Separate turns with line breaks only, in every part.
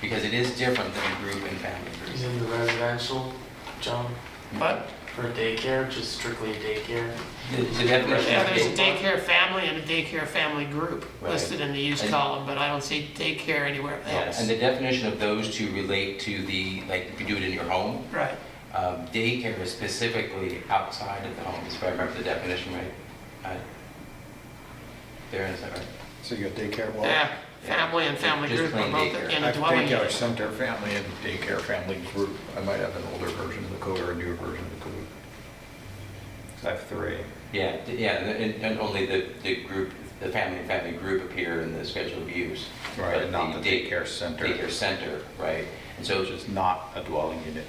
because it is different than a group and family
Is
group.
it the residential, John,
But,
for daycare, just strictly a daycare?
The the
yeah, there's
definition,
they-
daycare family and a daycare family group
Right.
listed in the use
And-
column, but I don't see daycare anywhere
yeah, and
else.
the definition of those two relate to the, like, if you do it in your home,
Right,
um, daycare is specifically outside of the home, if I remember the definition right. Uh, Darren, is that right?
So you got daycare, well.
yeah, family and family
Just
group are
plain
both
daycare.
in
I
a dwelling
think our
unit.
center family and daycare family group, I might have an older version of the code or a newer version of the code. 'Cause I have three.
Yeah, d- yeah, and, and only the, the group, the family and family group appear in the schedule of use.
Right,
but
not the
day-
daycare center.
Daycare center, right, and so
Which
it's just
is not a dwelling unit.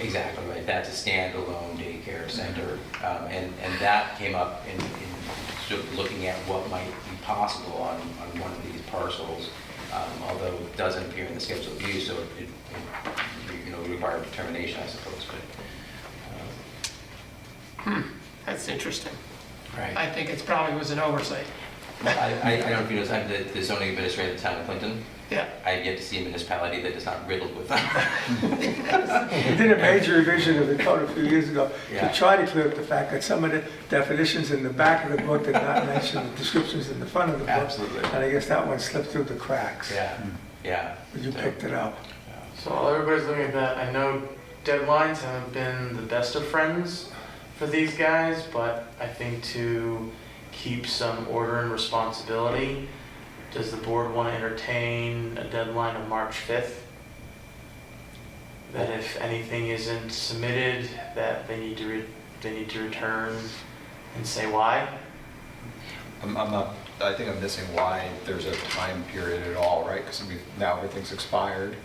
Exactly, right, that's a standalone daycare center, um, and, and that came up in, in sort of looking at what might be possible on, on one of these parcels, um, although it doesn't appear in the schedule of use, so it, it, it, you know, would require determination, I suppose, but.
Hmm, That's interesting.
uh, Right.
I think it's probably was an oversight.
I, I, I don't know if you noticed, I'm the the zoning administrator of the town of Clinton,
Yeah,
I have yet to see a municipality that is not riddled with them.
We did a major revision of the code a few years ago
Yeah.
to try to clear up the fact that some of the definitions in the back of the book did not mention the descriptions in the front of the book.
Absolutely.
And I guess that one slipped through the cracks.
Yeah,
Hmm.
yeah.
But you
So-
picked it up.
So while everybody's looking at that, I know deadlines haven't been the best of friends for these guys, but I think to keep some order and responsibility, does the board want to entertain a deadline of March 5th? That if anything isn't submitted, that they need to, re- they need to return and say why?
I'm, I'm not, I think I'm missing why there's a time period at all, right? Because now everything's expired.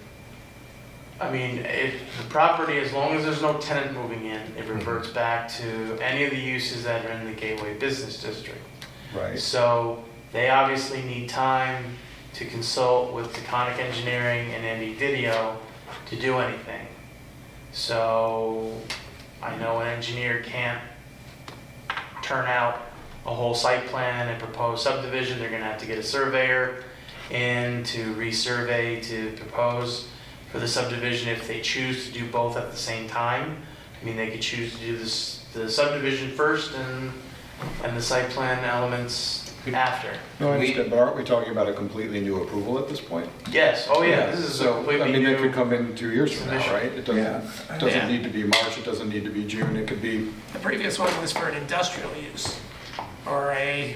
I mean, if the property, as long as there's no tenant moving in, it reverts back to any of the uses that are in the Gateway Business District. So they obviously need time to consult with Taconic Engineering and Andy Didio to do anything. So I know an engineer can't turn out a whole site plan and propose subdivision, they're gonna have to get a surveyor in to resurvey, to propose for the subdivision if they choose to do both at the same time. I mean, they could choose to do this, the subdivision first and, and the site plan elements after.
No, I
We-
understand, but aren't we talking about a completely new approval at this point?
Yes, oh yeah, this is a
So, I
completely
mean, it could
new,
come in two years from now,
submission.
right? It
Yeah.
doesn't,
Yeah.
doesn't need to be March, it doesn't need to be June, it could be
the previous one was for an industrial use, or a,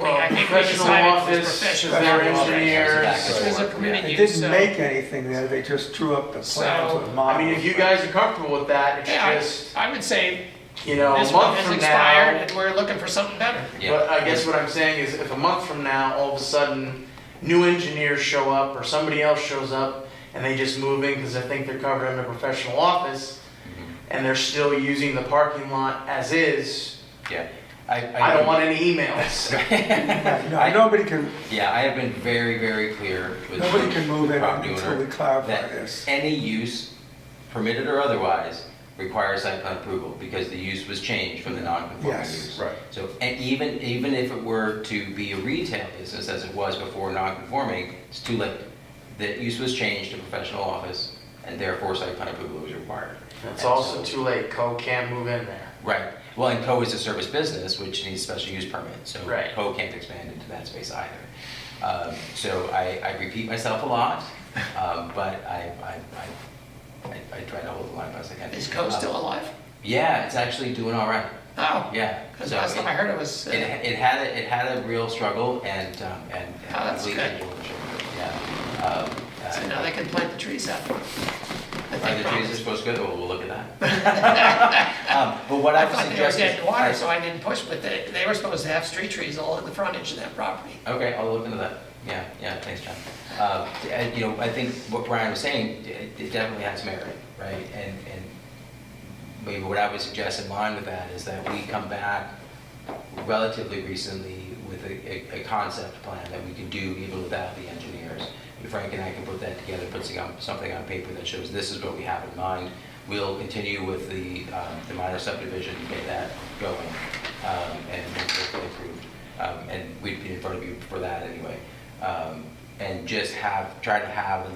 well,
I think we
Oh, professional
decided it was
office,
professional
their
office.
engineers.
this was a permitted
They
use, so.
didn't make anything there, they just drew up the plans
So-
with
I
models.
mean, if you guys are comfortable with that, it's
Yeah,
just,
I I would say
you know, a
this one
month
has
from
expired
now.
and we're looking for something better.
Yeah.
But I guess what I'm saying is if a month from now, all of a sudden, new engineers show up or somebody else shows up and they just move in because they think they're covered under professional office
Mm-hmm.
and they're still using the parking lot as is,
Yeah. I,
I don't want any emails.
No, nobody can,
Yeah, I have been very, very clear with.
Nobody can move in
property
until
owner
we clarify
that
this.
Any use, permitted or otherwise, requires site plan approval because the use was changed from the non-conforming
Yes.
use.
Right.
So, and even, even if it were to be a retail business as it was before non-conforming, it's too late. The use was changed to professional office and therefore site plan approval is required.
It's
And
also
so-
too late, Co can't move in there.
Right. Well, and Co is a service business, which needs special use permit, so
Right.
Co can't expand into that space either. Um, So I, I repeat myself a lot, um, but I, I, I- I, I try to hold the line best I can.
Is Coe still
Um,
alive?
Yeah, it's actually doing all right,
Oh.
yeah.
Because
So
last time
it-
I heard it was, uh,
It, it had, a- it had a real struggle and, um, and.
Oh, that's
and we-
good.
Yeah. Um, uh,
so now they can plant the trees out. I
Are the
think
trees
probably.
are supposed to go, well, we'll look at that. Um, But what
I
I've
thought
suggested.
they were dead in water,
I-
so I didn't push, but they, they were supposed to have street trees all at the front edge of that property.
Okay, I'll look into that. Yeah, yeah, thanks, John. Uh, and, You know, I think what Brian was saying, it it definitely has merit, right? And, and maybe what I would suggest in line with that is that we come back relatively recently with a, a- a concept plan that we can do even without the engineers. And Frank and I can put that together, put some- something on paper that shows this is what we have in mind. We'll continue with the, um, the minor subdivision, get that going, um, and hopefully approved. Um, And we'd be in front of you for that anyway. Um, And just have, try to have